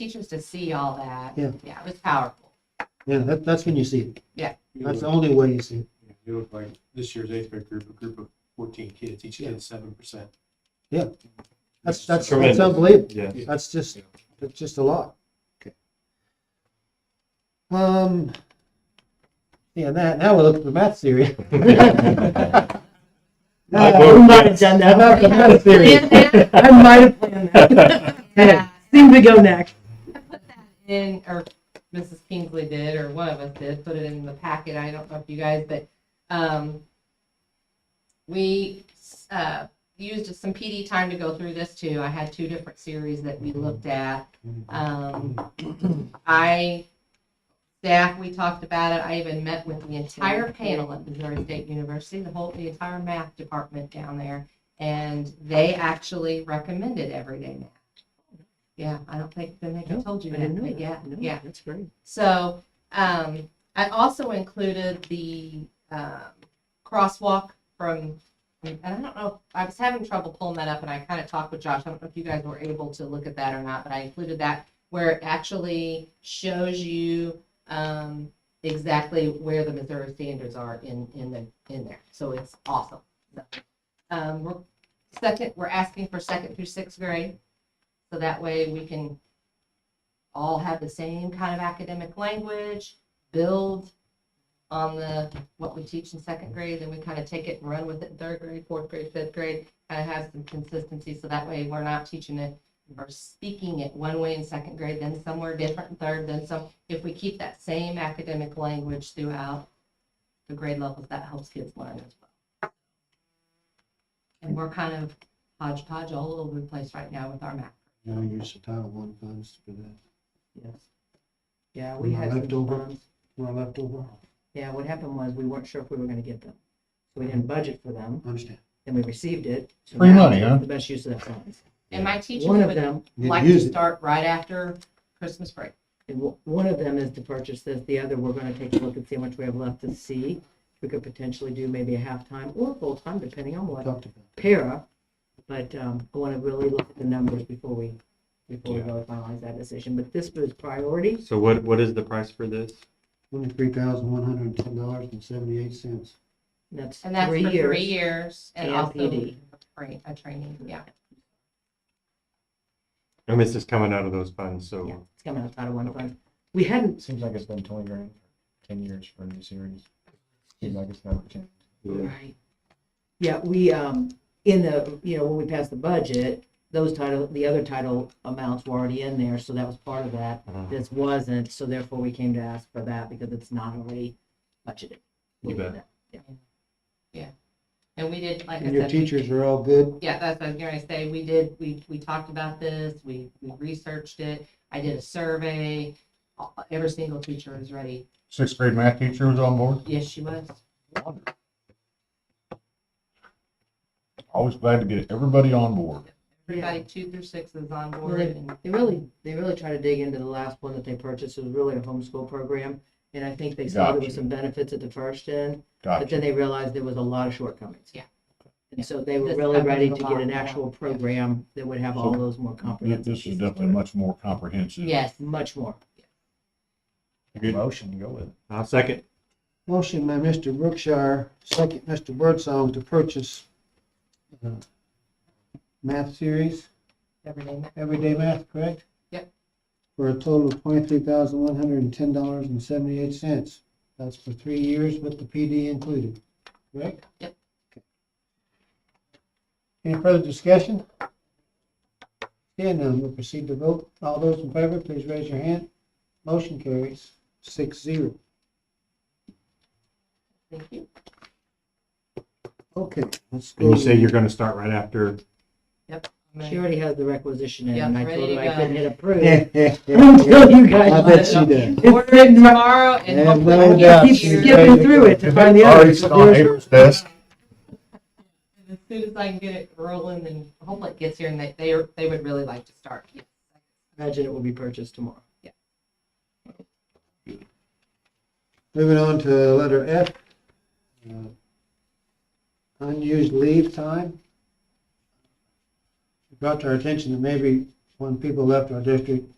teachers to see all that. Yeah. Yeah, it was powerful. Yeah, that, that's when you see it. You That's the look- only way you see it. you look like this year's eighth grade group, a group of fourteen kids, each kid seven percent. Yeah. That's, that's, that's Tremendous. unbelievable. Yeah. That's just, that's just a lot. Okay. Um, yeah, now, now we're looking for math theory. I vote Uh, yes. done I'm not for math theory. I might have planned that. Yeah. Seemed to go next. in, or Mrs. Kingsley did, or one of us did, put it in the packet, I don't know if you guys, but, um, we, uh, used some PD time to go through this too, I had two different series that we looked at. Um, I, staff, we talked about it, I even met with the entire panel at Missouri State University, the whole, the entire math department down there, and they actually recommended everyday math. Yeah, I don't think, I think I No, told you I that, didn't know but that. yeah, No, yeah. That's great. So um, I also included the um, crosswalk from, and I don't know, I was having trouble pulling that up and I kind of talked with Josh. I don't know if you guys were able to look at that or not, but I included that where it actually shows you um, exactly where the Missouri standards are in, in the, in there. So it's awesome. Um, we're, second, we're asking for second through sixth grade. So that way we can all have the same kind of academic language, build on the, what we teach in second grade, then we kind of take it and run with it in third grade, fourth grade, fifth grade, kind of have some consistency, so that way we're not teaching it or speaking it one way in second grade, then somewhere different in third, then some, if we keep that same academic language throughout the grade levels, that helps kids learn as well. And we're kind of hodgepodge all over the place right now with our math. You know, use the Title One funds for that. Yes. Yeah, we Am I had some left over? funds. We're left over. Yeah, what happened was we weren't sure if we were gonna get them. So we didn't budget for them, Understand. then we received it. So Free now money, it's huh? The best use of that funds. And my teachers One of would them, Need to like to use it. start right after Christmas break. and w- one of them is to purchase this, the other, we're gonna take a look and see how much we have left to see. We could potentially do maybe a half-time or full-time, depending on what Talked about. para, but um, I want to really look at the numbers before we, before we Yeah. really finalize that decision. But this was priority. So what, what is the price for this? Twenty-three thousand, one hundred and ten dollars and seventy-eight cents. That's And that's three for three years. years and and also PD. tra- a training, yeah. And this is coming out of those funds, Yeah, so it's coming out of Title One fund. We hadn't, Seems like it's been twenty grand, for ten years for a new series. Seems like it's not. right. Yeah, we, um, in the, you know, when we passed the budget, those title, the other title amounts were already in there, so that was part of that. Uh-huh. This wasn't, so therefore we came to ask for that because it's not already budgeted. You bet. And we did, like I And your said, we- teachers are all good. yeah, that's what I was gonna say, we did, we, we talked about this, we, we researched it, I did a survey. Uh, Every single teacher is ready, Sixth grade math teacher was on board, yes, she was, always glad to get everybody on board. everybody two through six is on Well, board and. They really, they really try to dig into the last one that they purchased, it was really a homeschool program, and I think they saw there was Gotcha. some benefits at the first end, but then Gotcha. they realized there was a lot of shortcomings. Yeah. And so they were This really ready to covers a get an lot more. actual program that would have all So those more comprehensive. This is pieces. definitely much more comprehensive. Yes, Much more. Motion, go with it. I'll second. Motion by Mr. Brookshire, second Mr. Birdsong to purchase uh, math series, every day. everyday math, correct? Yep. For a total of twenty-three thousand, one hundred and ten dollars and seventy-eight cents. That's for three years with the PD included, correct? Yep. Okay. Any further discussion? Seeing none, we'll proceed to vote. All those in favor, please raise your hand. Motion carries six zero. thank you. Okay, let's go. And you say you're gonna start right after, I'm gonna- She already has the requisition in, Yeah, and I told ready her to I couldn't hit approve. I Until you guys. bet she does. Order it tomorrow and. Yeah, hopefully no we'll get doubt it she's here. ready. Skipping through it to find the Already others. sitting on April's desk. As soon as I can get it rolling and hopefully it gets here and they, they, are- they would really like to start. Imagine it will be purchased tomorrow. Moving on to letter F. uh, Unused leave time. Brought to our attention that maybe when people left our district,